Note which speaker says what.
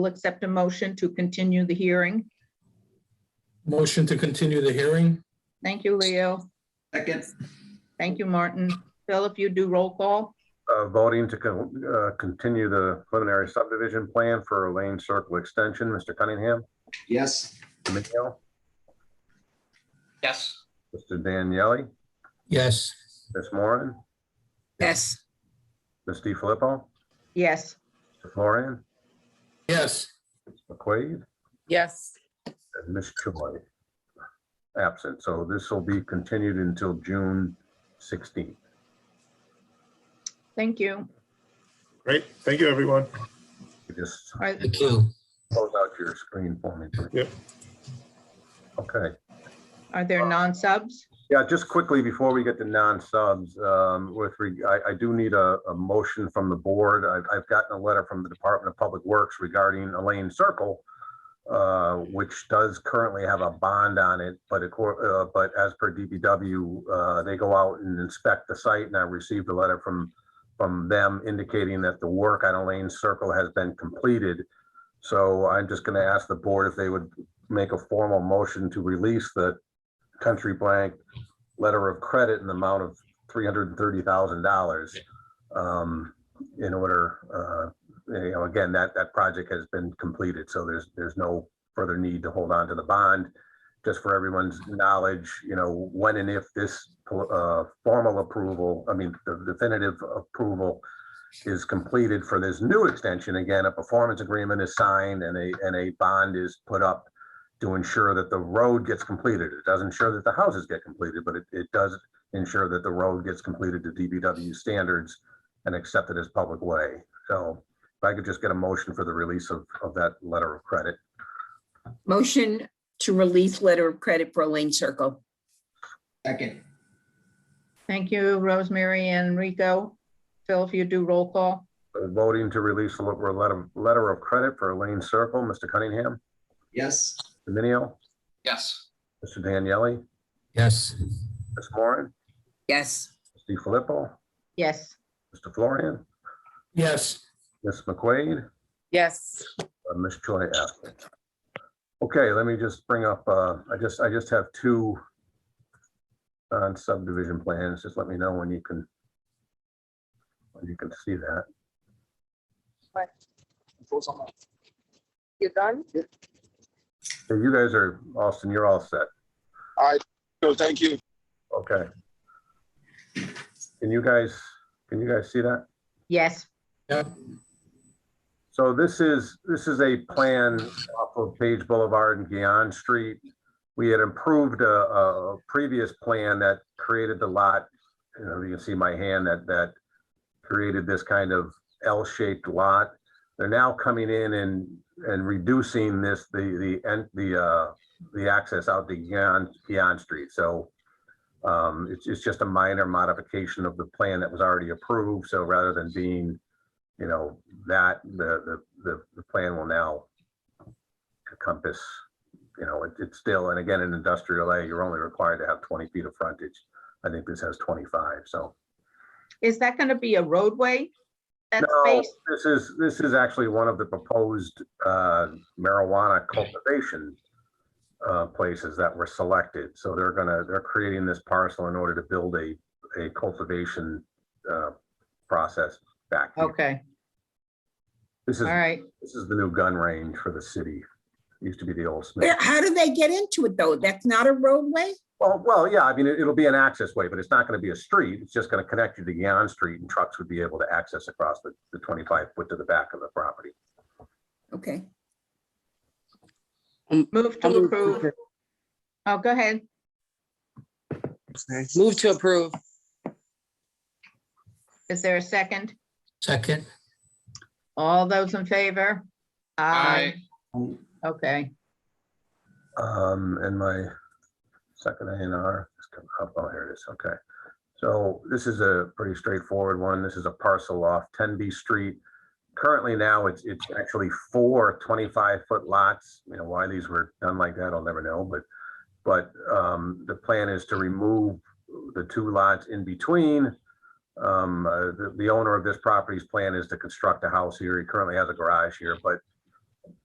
Speaker 1: will accept a motion to continue the hearing.
Speaker 2: Motion to continue the hearing?
Speaker 1: Thank you, Leo.
Speaker 3: Second,
Speaker 1: Thank you, Martin. Phil, if you do roll call,
Speaker 4: uh, voting to con- uh, continue the preliminary subdivision plan for Lane Circle Extension. Mr. Cunningham,
Speaker 3: yes.
Speaker 4: Danielle,
Speaker 3: Yes.
Speaker 4: Mr. Daniele,
Speaker 2: Yes.
Speaker 4: Ms. Moran,
Speaker 5: yes,
Speaker 4: Ms. Di Filippo,
Speaker 1: yes.
Speaker 4: Mr. Florian,
Speaker 2: Yes.
Speaker 4: McQuaid,
Speaker 5: yes,
Speaker 4: and Ms. Choi. Absent. So this will be continued until June 16th.
Speaker 1: Thank you.
Speaker 6: Great. Thank you, everyone.
Speaker 4: You Just
Speaker 1: All right,
Speaker 2: Thank you.
Speaker 4: close out your screen for me. please.
Speaker 6: Yep.
Speaker 4: Okay.
Speaker 1: Are there non-subs?
Speaker 4: Yeah, just quickly before we get to non-subs, um, with, reg- I, I do need a, a motion from the board. I've, I've gotten a letter from the Department of Public Works regarding Elaine Circle, uh, which does currently have a bond on it, but accor, uh, but as per DPW, uh, they go out and inspect the site and I received a letter from, from them indicating that the work on Elaine Circle has been completed. So I'm just gonna ask the board if they would make a formal motion to release the country blank letter of credit in the amount of three hundred and thirty thousand dollars. um, In order, uh, you know, again, that, that project has been completed, so there's, there's no further need to hold on to the bond. Just for everyone's knowledge, you know, when and if this uh, formal approval, I mean, the definitive approval is completed for this new extension, again, a performance agreement is signed and a, and a bond is put up to ensure that the road gets completed. It doesn't ensure that the houses get completed, but it, it does ensure that the road gets completed to DBW standards and accepted as public way. So if I could just get a motion for the release of, of that letter of credit.
Speaker 5: motion to release letter of credit for Lane Circle,
Speaker 3: Second,
Speaker 1: Thank you, Rosemary and Rico. Phil, if you do roll call,
Speaker 4: Uh, Voting to release the letter, letter- letter of credit for Elaine Circle, Mr. Cunningham,
Speaker 3: yes.
Speaker 4: Dominio,
Speaker 3: Yes.
Speaker 4: Mr. Daniele,
Speaker 2: Yes.
Speaker 4: Ms. Moran,
Speaker 5: yes,
Speaker 4: Steve Filippo,
Speaker 1: yes.
Speaker 4: Mr. Florian,
Speaker 2: Yes.
Speaker 4: Ms. McQuaid,
Speaker 5: yes,
Speaker 4: Uh, Ms. Choi absent. Okay, let me just bring up, uh, I just, I just have two on subdivision plans. Just let me know when you can when you can see that.
Speaker 7: You done?
Speaker 4: So you guys are, Austin, you're all set.
Speaker 7: All right, so thank you.
Speaker 4: Okay. Can you guys, can you guys see that?
Speaker 1: Yes,
Speaker 4: So this is, this is a plan off of Page Boulevard and Guion Street. We had improved a, a previous plan that created the lot. You know, you can see my hand that, that created this kind of L-shaped lot. They're now coming in and, and reducing this, the, the, and the, uh, the access out to Guion, Guion Street. So um, it's, it's just a minor modification of the plan that was already approved. So rather than being you know, that, the, the, the, the plan will now encompass, you know, it- it's still, and again, in industrial A, you're only required to have twenty feet of frontage. I think this has twenty-five, so.
Speaker 1: is that going to be a roadway? That
Speaker 4: No,
Speaker 1: space?
Speaker 4: this is, this is actually one of the proposed uh, marijuana cultivation uh, places that were selected. So they're gonna, they're creating this parcel in order to build a, a cultivation uh, process back. here.
Speaker 1: Okay,
Speaker 4: This is
Speaker 1: all right.
Speaker 4: This is the new gun range for the city. Used to be the old
Speaker 5: Where-
Speaker 4: Smith.
Speaker 5: how do they get into it though? That's not a roadway?
Speaker 4: Well, well, yeah, I mean, it- it'll be an access way, but it's not going to be a street. It's just going to connect you to Yon Street and trucks would be able to access across the, the twenty-five foot to the back of the property.
Speaker 5: Okay,
Speaker 1: Move
Speaker 8: I'll
Speaker 1: to
Speaker 8: Move
Speaker 1: approve.
Speaker 8: to-
Speaker 1: Oh, go ahead.
Speaker 8: move to approve.
Speaker 1: Is there a second?
Speaker 2: Second.
Speaker 1: All those in favor? Aye. Okay,
Speaker 4: Um, and my second A and R is coming up. Oh, here it is. Okay. So this is a pretty straightforward one. This is a parcel off ten B Street. Currently now, it's, it's actually four 25 foot lots. You know, why these were done like that, I'll never know, but, but, um, the plan is to remove the two lots in between. Um, uh, the, the owner of this property's plan is to construct a house here. He currently has a garage here, but